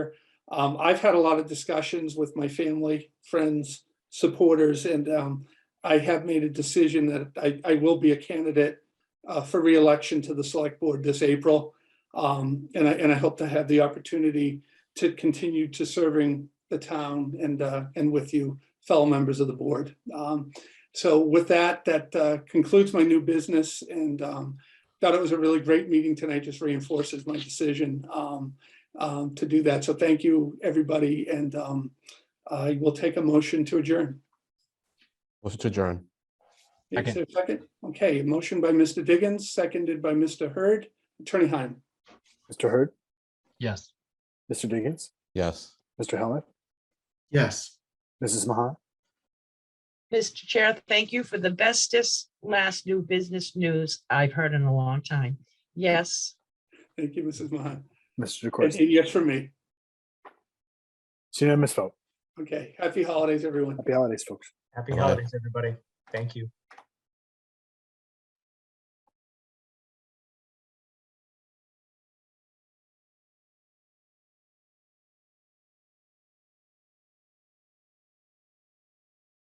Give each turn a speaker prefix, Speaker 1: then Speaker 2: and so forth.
Speaker 1: Um, I've had a lot of discussions with my family, friends, supporters, and um, I have made a decision that I, I will be a candidate uh, for reelection to the select board this April. Um, and I, and I hope to have the opportunity to continue to serving the town and, uh, and with you fellow members of the board. Um, so with that, that uh, concludes my new business and um, thought it was a really great meeting tonight, just reinforces my decision. Um, um, to do that. So thank you, everybody, and um, I will take a motion to adjourn.
Speaker 2: Motion to adjourn.
Speaker 1: Is there a Second. Okay, a motion by Mr. Diggins, seconded by Mr. Hurd. Attorney Heim.
Speaker 3: Mr. Hurd,
Speaker 4: Yes.
Speaker 3: Mr. Diggins,
Speaker 2: Yes.
Speaker 3: Mr. Helmut,
Speaker 4: Yes.
Speaker 3: Mrs. Mahan,
Speaker 5: Mr. Chair, thank you for the bestest last new business news I've heard in a long time. Yes,
Speaker 1: Thank you, Mrs. Mahan.
Speaker 3: Mr.
Speaker 1: And
Speaker 3: DeCoursey.
Speaker 1: and yes for me.
Speaker 3: It's unanimous vote.
Speaker 1: Okay, happy holidays, everyone.
Speaker 3: Happy holidays, folks.
Speaker 4: Happy
Speaker 2: Bye-bye.
Speaker 4: holidays, everybody. Thank you.